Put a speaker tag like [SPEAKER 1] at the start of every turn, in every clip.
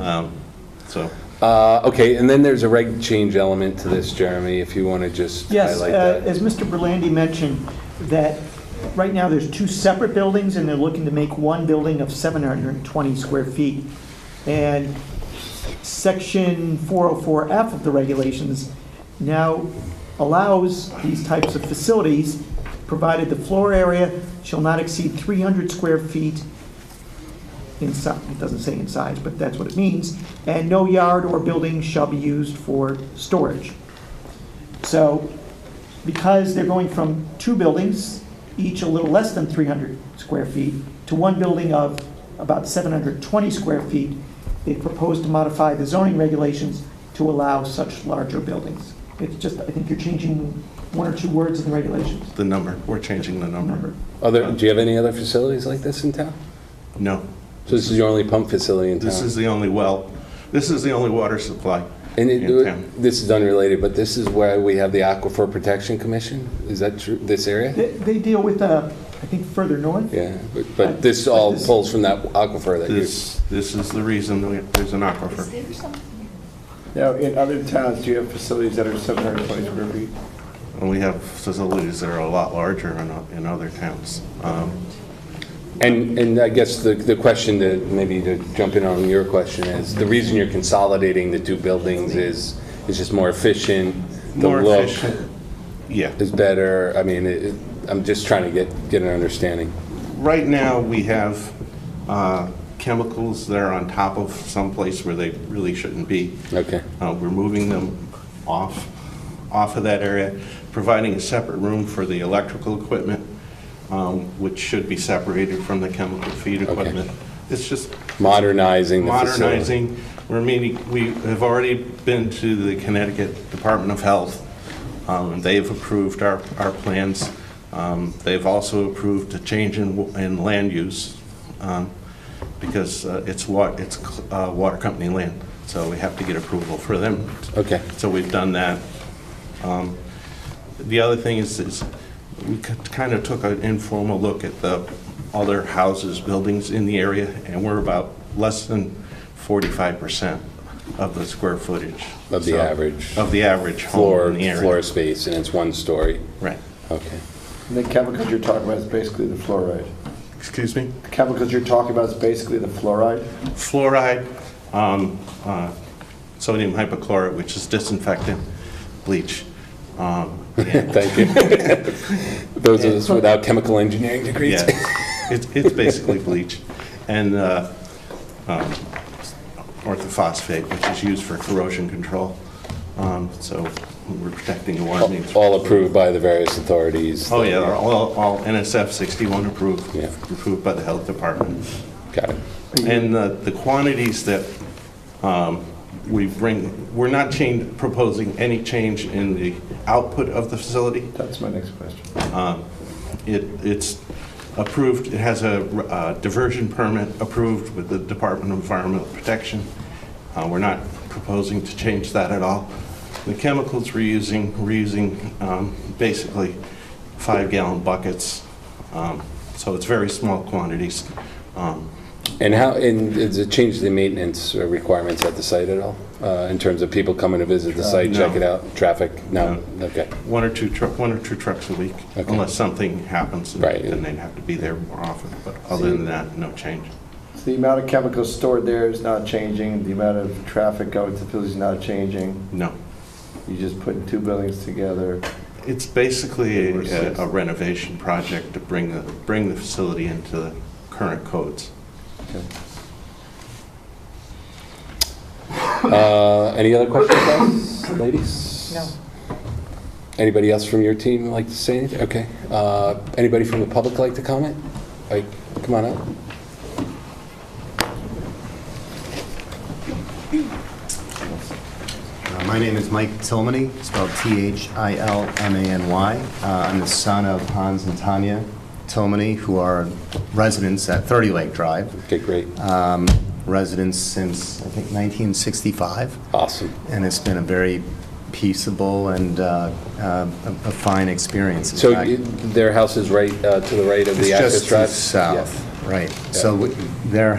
[SPEAKER 1] Um, So,
[SPEAKER 2] Uh, Okay, and then there's a reg change element to this, Jeremy, if you want to just
[SPEAKER 3] Yes,
[SPEAKER 2] highlight
[SPEAKER 3] uh,
[SPEAKER 2] that.
[SPEAKER 3] as Mr. Berlandi mentioned, that right now there's two separate buildings, and they're looking to make one building of 720 square feet. And Section 404F of the regulations now allows these types of facilities, provided the floor area shall not exceed 300 square feet in si, it doesn't say in size, but that's what it means, and no yard or building shall be used for storage. So because they're going from two buildings, each a little less than 300 square feet, to one building of about 720 square feet, they propose to modify the zoning regulations to allow such larger buildings. It's just, I think you're changing one or two words in the regulations.
[SPEAKER 1] the number, we're changing the number.
[SPEAKER 3] Remember,
[SPEAKER 2] Other, do you have any other facilities like this in town?
[SPEAKER 1] No,
[SPEAKER 2] So this is your only pump facility in town?
[SPEAKER 1] this is the only well, this is the only water supply.
[SPEAKER 2] And it-
[SPEAKER 1] in town.
[SPEAKER 2] this is unrelated, but this is where we have the Aquifer Protection Commission? Is that true, this area?
[SPEAKER 3] They they deal with, uh, I think, further north.
[SPEAKER 2] Yeah, but, but this all pulls from that aquifer that you,
[SPEAKER 1] This, this is the reason we- there's an aquifer.
[SPEAKER 4] Now, in other towns, do you have facilities that are 720 square feet?
[SPEAKER 1] And we have facilities that are a lot larger in, o- in other towns. Um,
[SPEAKER 2] and, and I guess the, the question to, maybe to jump in on your question is, the reason you're consolidating the two buildings is, is just more efficient? the
[SPEAKER 1] More
[SPEAKER 2] look
[SPEAKER 1] efficient. Yeah.
[SPEAKER 2] Is better, I mean, it, it- I'm just trying to get, get an understanding.
[SPEAKER 1] Right now, we have uh, chemicals that are on top of someplace where they really shouldn't be.
[SPEAKER 2] Okay.
[SPEAKER 1] Uh, We're moving them off, off of that area, providing a separate room for the electrical equipment, um, which should be separated from the chemical feed equipment. It's just
[SPEAKER 2] Modernizing the facility.
[SPEAKER 1] modernizing. We're meeting, we have already been to the Connecticut Department of Health, um, and they've approved our, our plans. Um, They've also approved a change in, w- in land use, um, because uh, it's wa, it's uh, water company land, so we have to get approval for them.
[SPEAKER 2] Okay.
[SPEAKER 1] So we've done that. Um, The other thing is, is we kind of took an informal look at the other houses, buildings in the area, and we're about less than 45% of the square footage.
[SPEAKER 2] Of the
[SPEAKER 1] So-
[SPEAKER 2] average
[SPEAKER 1] Of the average home
[SPEAKER 2] Floor,
[SPEAKER 1] in the area.
[SPEAKER 2] floor space, and it's one story?
[SPEAKER 1] Right.
[SPEAKER 2] Okay.
[SPEAKER 4] And the chemicals you're talking about is basically the fluoride.
[SPEAKER 1] Excuse me?
[SPEAKER 4] The chemicals you're talking about is basically the fluoride?
[SPEAKER 1] Fluoride, um, uh, sodium hypochlorite, which is disinfectant, bleach. um, and-
[SPEAKER 2] Thank you. Those of us without chemical engineering degrees.
[SPEAKER 1] Yeah, it's, it's basically bleach and uh, um, orthophosphate, which is used for corrosion control. Um, So we're protecting the water main.
[SPEAKER 2] All approved by the various authorities.
[SPEAKER 1] Oh, yeah, they're all, all NSF 61 approved,
[SPEAKER 2] Yeah.
[SPEAKER 1] approved by the health department.
[SPEAKER 2] Got it.
[SPEAKER 1] And the, the quantities that um, we bring, we're not change, proposing any change in the output of the facility.
[SPEAKER 4] That's my next question.
[SPEAKER 1] It, it's approved, it has a uh, diversion permit approved with the Department of Environmental Protection. Uh, We're not proposing to change that at all. The chemicals we're using, we're using um, basically five-gallon buckets, um, so it's very small quantities. Um,
[SPEAKER 2] And how, and does it change the maintenance requirements at the site at all? Uh, In terms of people coming to visit the site, check
[SPEAKER 1] Uh, No.
[SPEAKER 2] it out, traffic? No? Okay.
[SPEAKER 1] One or two, tru- one or two trucks a week,
[SPEAKER 2] Okay.
[SPEAKER 1] unless something happens, and
[SPEAKER 2] Right.
[SPEAKER 1] then they'd have to be there more often, but other than that, no change.
[SPEAKER 4] So the amount of chemicals stored there is not changing, the amount of traffic going to the facility is not changing.
[SPEAKER 1] No.
[SPEAKER 4] You're just putting two buildings together.
[SPEAKER 1] It's basically
[SPEAKER 4] Or
[SPEAKER 1] a
[SPEAKER 4] six.
[SPEAKER 1] a renovation project to bring the, bring the facility into the current codes.
[SPEAKER 4] Okay.
[SPEAKER 2] Uh, Any other questions, guys? ladies?
[SPEAKER 3] No.
[SPEAKER 2] Anybody else from your team like to say anything? Okay. Uh, Anybody from the public like to comment? Like, come on up.
[SPEAKER 5] Uh, My name is Mike Tilmany, spelled T-H-I-L-M-A-N-Y. Uh, I'm the son of Hans and Tanya Tilmany, who are residents at 30 Lake Drive,
[SPEAKER 2] Okay, great.
[SPEAKER 5] Um, residents since, I think, 1965,
[SPEAKER 2] Awesome.
[SPEAKER 5] and it's been a very peaceable and uh, uh, a a fine experience. In
[SPEAKER 2] So
[SPEAKER 5] fact,
[SPEAKER 2] you- their house is right uh, to the right of
[SPEAKER 5] It's
[SPEAKER 2] the access
[SPEAKER 5] just
[SPEAKER 2] drive?
[SPEAKER 5] south, right. So w- their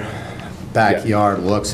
[SPEAKER 5] backyard looks